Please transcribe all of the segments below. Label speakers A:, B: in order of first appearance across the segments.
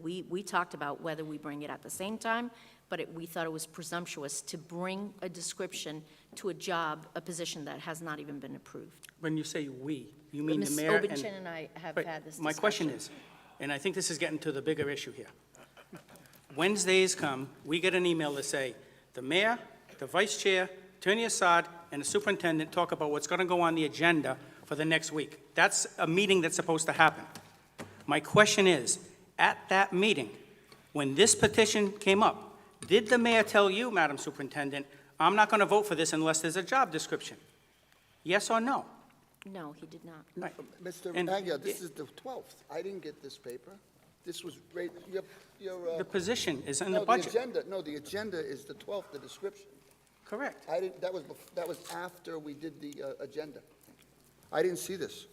A: We, we talked about whether we bring it at the same time, but it- we thought it was presumptuous to bring a description to a job, a position that has not even been approved.
B: When you say "we," you mean the
A: Ms.
B: mayor and...
A: Obenchain and I have
B: Wait,
A: had this discussion.
B: My question is, and I think this is getting to the bigger issue here. Wednesdays come, we get an email to say, the mayor, the vice chair, Attorney Assad, and the superintendent talk about what's going to go on the agenda for the next week. That's a meeting that's supposed to happen. My question is, at that meeting, when this petition came up, did the mayor tell you, Madam Superintendent, I'm not going to vote for this unless there's a job description? Yes or no?
A: No, he did not.
B: Right.
C: Mr.
B: And-
C: Agia, this is the 12th. I didn't get this paper. This was, right- your, your, uh,
B: The position is in the
C: no, the
B: budget.
C: agenda, no, the agenda is the 12th, the description.
B: Correct.
C: I didn't, that was, bef- that was after we did the uh, agenda. I didn't see this.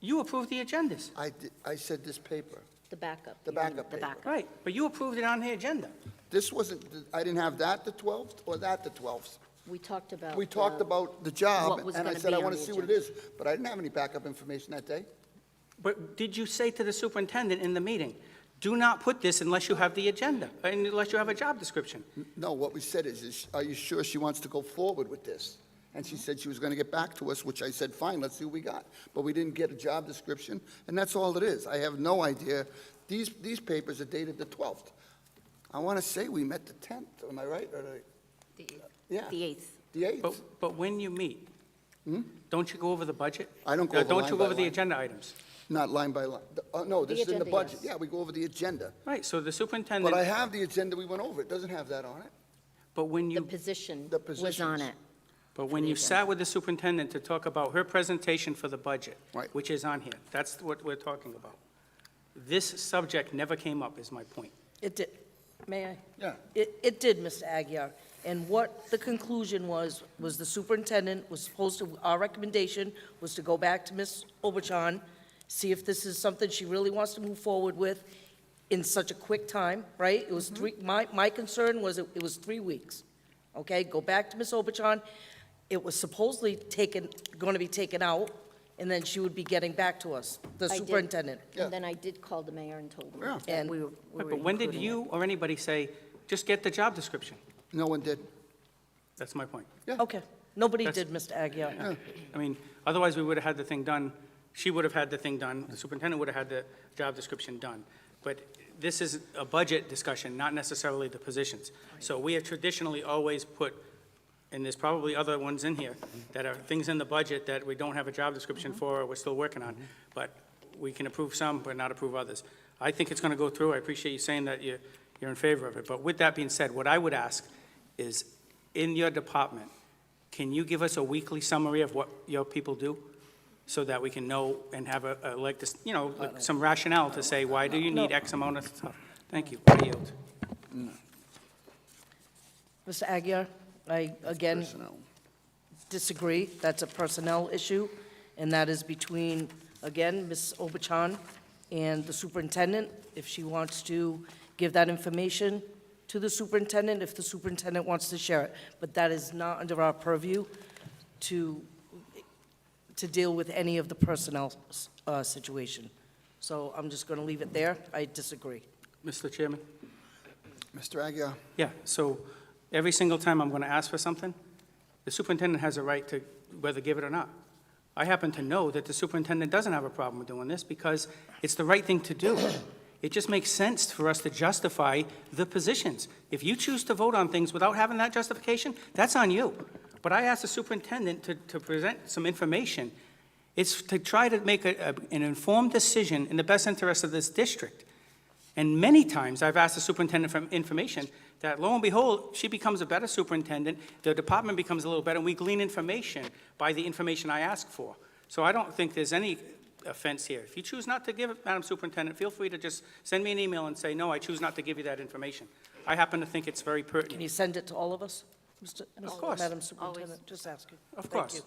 B: You approved the agendas.
C: I, di- I said this paper.
A: The backup.
C: The
A: you mean,
C: backup
A: The
C: paper.
A: backup.
B: Right, but you approved it on the agenda.
C: This wasn't, the- I didn't have that the 12th or that the 12th.
A: We talked about.
C: We talked
A: the-
C: about the job,
A: What was
C: and I
A: gonna
C: said,
A: be
C: I
A: on
C: want to
A: the
C: see what it is, but I didn't have any backup information that day.
B: But did you say to the superintendent in the meeting, do not put this unless you have the agenda, unless you have a job description?
C: No, what we said is, is, are you sure she wants to go forward with this? And she said she was going to get back to us, which I said, fine, let's see what we got. But we didn't get a job description, and that's all it is. I have no idea. These, these papers are dated the 12th. I want to say we met the 10th, am I right? Or the, yeah,
A: The eighth.
C: the 8th.
B: But, but when you meet, don't you go over the budget?
C: Hmm? I don't go
B: Uh,
C: over
B: Don't
C: line
B: you
C: by
B: go over the
C: line.
B: agenda items?
C: Not line by line. The- Oh, no, this
A: The
C: is in the
A: agenda,
C: budget.
A: yes.
C: Yeah, we go over the agenda.
B: Right, so the
C: But I
B: superintendent,
C: have the agenda we went over. It doesn't have that on it.
B: but when
A: The
B: you,
A: position
C: The
A: was on
C: positions.
A: it.
B: but when you sat with the superintendent to talk about her presentation for the budget,
C: Right.
B: which is on here, that's what we're talking about. This subject never came up, is my point.
D: It did, may I?
C: Yeah.
D: It, it did, Mr. Aguirre. And what the conclusion was, was the superintendent was supposed to, our recommendation was to go back to Ms. Obuchan, see if this is something she really wants to move forward with in such a quick time, right? It
A: Mm-hmm.
D: was three, my, my concern was it it was three weeks, okay? Go back to Ms. Obuchan. It was supposedly taken, going to be taken out, and then she would be getting back to us, the
A: I did-
D: superintendent.
C: Yeah.
A: And then I did call the mayor and told him
C: Yeah.
A: that we were we
B: Right,
A: were
B: But when did
A: including it.
B: you or anybody say, just get the job description?
C: No one did.
B: That's my point.
D: Okay, nobody
B: That's-
D: did, Mr. Aguirre.
B: I mean, otherwise, we would have had the thing done, she would have had the thing done, the superintendent would have had the job description done. But this is a budget discussion, not necessarily the positions. So we have traditionally always put, and there's probably other ones in here, that are things in the budget that we don't have a job description for, or we're still working on, but we can approve some, but not approve others. I think it's going to go through, I appreciate you saying that you're, you're in favor of it. But with that being said, what I would ask is, in your department, can you give us a weekly summary of what your people do? So that we can know and have a, a- like this, you know, like some rationale to say, why do you need X amount of stuff? Thank you. I yield.
D: Mr. Aguirre, I again
C: Personnel.
D: disagree. That's a personnel issue, and that is between, again, Ms. Obachan and the superintendent, if she wants to give that information to the superintendent, if the superintendent wants to share it. But that is not under our purview to, to deal with any of the personnel uh, situation. So I'm just going to leave it there. I disagree.
B: Mr. Chairman?
C: Mr. Agia,
B: Yeah, so every single time I'm going to ask for something, the superintendent has a right to whether give it or not. I happen to know that the superintendent doesn't have a problem with doing this because it's the right thing to do. It just makes sense for us to justify the positions. If you choose to vote on things without having that justification, that's on you. But I asked the superintendent to, to present some information. It's to try to make a, a- an informed decision in the best interest of this district. And many times, I've asked the superintendent for information, that lo and behold, she becomes a better superintendent, the department becomes a little better, and we glean information by the information I ask for. So I don't think there's any offense here. If you choose not to give it, Madam Superintendent, feel free to just send me an email and say, no, I choose not to give you that information. I happen to think it's very
D: Can you
B: pertinent.
D: send it to all of us? Mr. Mr.
B: course.
D: Madam Superintendent, just asking.
B: Of
D: Thank
B: course.
D: you.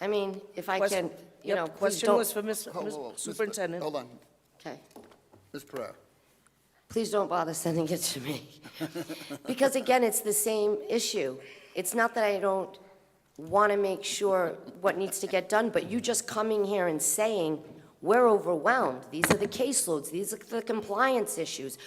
E: I mean, if I
D: Question-
E: can, you know,
D: Yep,
E: please
D: Question was
E: don't,
D: for Ms.
C: Hold-
D: Ms.
C: hold- hold. Ms. Pe-
D: Superintendent.
C: Hold on,
E: okay,
C: Ms. Pereira.
E: please don't bother sending it to me. Because again, it's the same issue. It's not that I don't want to make sure what needs to get done, but you just coming here and saying We're overwhelmed. These are the caseloads, these are the compliance issues.